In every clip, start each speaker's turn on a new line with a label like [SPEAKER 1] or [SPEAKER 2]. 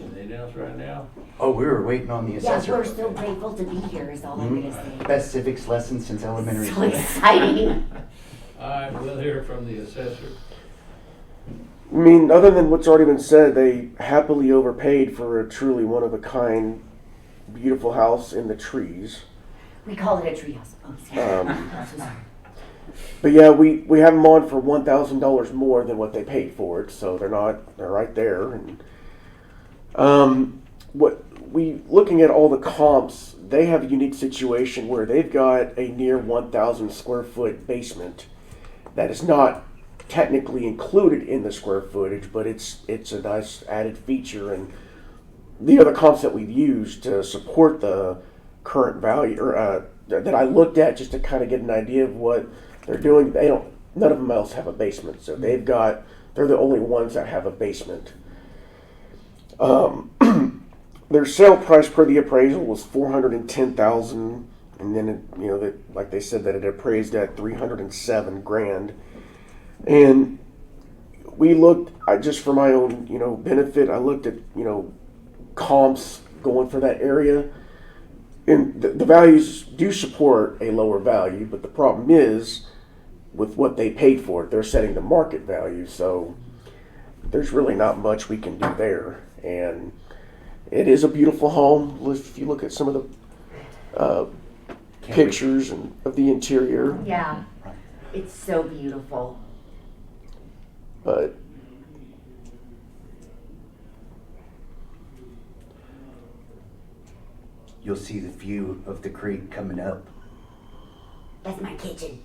[SPEAKER 1] anything else right now?
[SPEAKER 2] Oh, we were waiting on the
[SPEAKER 3] Yeah,
[SPEAKER 2] assessor.
[SPEAKER 3] we're still grateful to be here is all
[SPEAKER 4] Hmm?
[SPEAKER 3] I'm
[SPEAKER 2] Mhm.
[SPEAKER 3] gonna say.
[SPEAKER 2] Best civics lesson since elementary
[SPEAKER 3] So
[SPEAKER 2] school.
[SPEAKER 3] exciting.
[SPEAKER 1] All right, we'll hear from the assessor.
[SPEAKER 5] I mean, other than what's already been said, they happily overpaid for a truly one of a kind, beautiful house in the trees.
[SPEAKER 3] We call it a treehouse. Oh, sorry.
[SPEAKER 5] Um,
[SPEAKER 3] I'm so sorry.
[SPEAKER 5] but yeah, we, we have them on for one thousand dollars more than what they paid for it, so they're not they're right there. And um, what we looking at all the comps, they have a unique situation where they've got a near one thousand square foot basement that is not technically included in the square footage, but it's it's a nice added feature and the other comps that we've used to support the current value or uh, th- that I looked at just to kind of get an idea of what they're doing. They don't. None of them else have a basement, so they've got. They're the only ones that have a basement. Um, their sale price per the appraisal was four hundred and ten thousand, and then it, you know that like they said that it appraised at three hundred and seven grand, and we looked I just for my own you know benefit I looked at you know comps going for that area and the, the values do support a lower value but the problem is with what they paid for it they're setting the market value so there's really not much we can do there and it is a beautiful home if you look at some of the uh, pictures and of the interior
[SPEAKER 3] Yeah, it's so beautiful.
[SPEAKER 5] but
[SPEAKER 2] You'll see the view of the creek coming up.
[SPEAKER 3] That's my kitchen.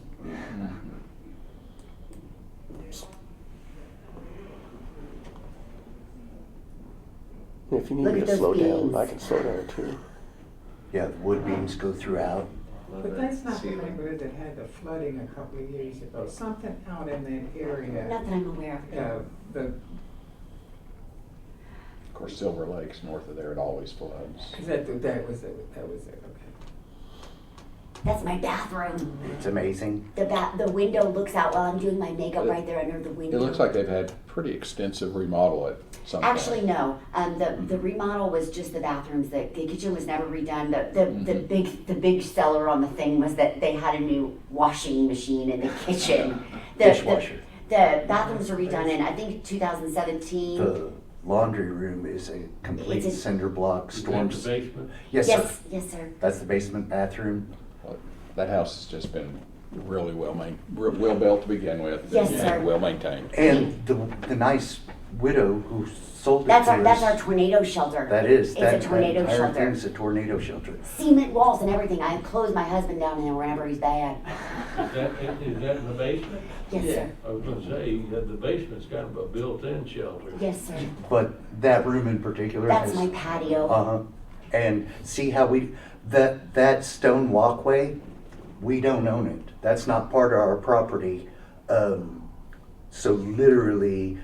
[SPEAKER 5] if you need
[SPEAKER 3] Look
[SPEAKER 5] me
[SPEAKER 3] at
[SPEAKER 5] to
[SPEAKER 3] those
[SPEAKER 5] slow
[SPEAKER 3] beams.
[SPEAKER 5] down I can slow down too.
[SPEAKER 2] Yeah, the wood beams go throughout.
[SPEAKER 6] But that's not the neighborhood that had the flooding a couple of years ago, something out in that area,
[SPEAKER 3] Not that I'm aware of.
[SPEAKER 6] uh, the,
[SPEAKER 4] Of course, Silver Lake's north of there, it always floods.
[SPEAKER 6] that, that was it, that was it, okay.
[SPEAKER 3] That's my bathroom.
[SPEAKER 2] It's amazing.
[SPEAKER 3] The ba- the window looks out while I'm doing my makeup right there under the window.
[SPEAKER 4] It looks like they've had pretty extensive remodel at some point.
[SPEAKER 3] Actually, no. Um, the,
[SPEAKER 4] Hmm.
[SPEAKER 3] the remodel was just the bathrooms. The, the kitchen was never redone. The, the, the
[SPEAKER 4] Hmm.
[SPEAKER 3] big the big seller on the thing was that they had a new washing machine in the kitchen. The,
[SPEAKER 2] Dishwasher.
[SPEAKER 3] The, the bathrooms were redone in I think 2017.
[SPEAKER 2] The laundry room is a complete
[SPEAKER 3] It's a-
[SPEAKER 2] cinder block storm.
[SPEAKER 1] Storm's basement.
[SPEAKER 2] Yes, sir.
[SPEAKER 3] yes, yes, sir.
[SPEAKER 2] That's the basement bathroom.
[SPEAKER 4] That house has just been really well main, re- well built to begin with.
[SPEAKER 3] Yes,
[SPEAKER 4] and
[SPEAKER 3] sir.
[SPEAKER 4] Well maintained.
[SPEAKER 2] And the, the nice widow who sold it
[SPEAKER 3] That's
[SPEAKER 2] to
[SPEAKER 3] our that's our
[SPEAKER 2] us-
[SPEAKER 3] tornado shelter.
[SPEAKER 2] That is,
[SPEAKER 3] It's
[SPEAKER 2] that,
[SPEAKER 3] a
[SPEAKER 2] that
[SPEAKER 3] tornado
[SPEAKER 2] entire
[SPEAKER 3] shelter.
[SPEAKER 2] thing's a tornado shelter.
[SPEAKER 3] Cement walls and everything. I close my husband down in there whenever he's bad.
[SPEAKER 1] Is that, is that in the basement?
[SPEAKER 3] Yes,
[SPEAKER 6] Yeah.
[SPEAKER 3] sir.
[SPEAKER 1] I was gonna say, that the basement's kind of a built-in shelter.
[SPEAKER 3] Yes, sir.
[SPEAKER 2] But that room in particular
[SPEAKER 3] That's
[SPEAKER 2] has
[SPEAKER 3] my patio.
[SPEAKER 2] Uh-huh. And see how we, that, that stone walkway, we don't own it. That's not part of our property. Um, so literally,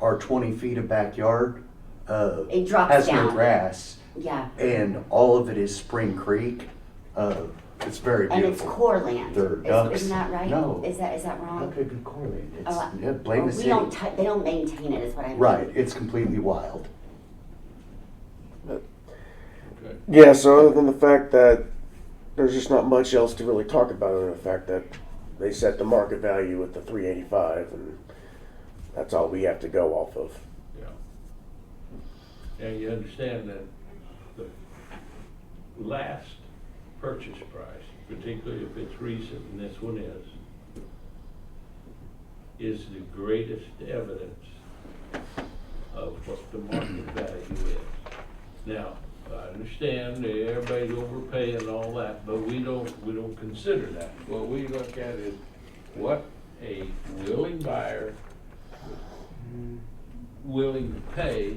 [SPEAKER 2] our twenty feet of backyard, uh,
[SPEAKER 3] It drops
[SPEAKER 2] has no
[SPEAKER 3] down.
[SPEAKER 2] grass.
[SPEAKER 3] Yeah,
[SPEAKER 2] And all of it is Spring Creek. Uh, it's very
[SPEAKER 3] and it's
[SPEAKER 2] beautiful.
[SPEAKER 3] core land.
[SPEAKER 2] There are
[SPEAKER 3] Is-
[SPEAKER 2] ducks.
[SPEAKER 3] Isn't that right?
[SPEAKER 2] No.
[SPEAKER 3] Is that is that
[SPEAKER 2] How
[SPEAKER 3] wrong?
[SPEAKER 2] could it be correlated? It's,
[SPEAKER 3] Oh,
[SPEAKER 2] yeah, blame the
[SPEAKER 3] We don't.
[SPEAKER 2] city.
[SPEAKER 3] tou- they don't maintain it. Is what I mean.
[SPEAKER 2] Right, it's completely wild.
[SPEAKER 1] Okay.
[SPEAKER 5] Yeah, so other than the fact that there's just not much else to really talk about other than the fact that they set the market value at the 385 and that's all we have to go off of.
[SPEAKER 1] Yeah. Now, you understand that the last purchase price, particularly if it's recent, and this one is, is the greatest evidence of what the market value is. Now, I understand that everybody's overpaying and all that, but we don't, we don't consider that. What we look at is what a willing buyer willing to pay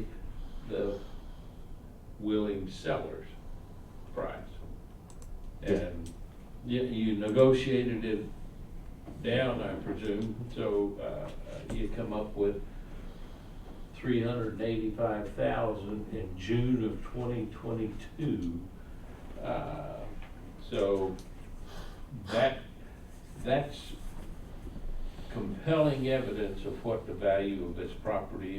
[SPEAKER 1] the willing seller's price. And you, you negotiated it down, I presume, so, uh, you come up with three hundred and eighty-five thousand in June of twenty twenty-two. Uh, so that, that's compelling evidence of what the value of this property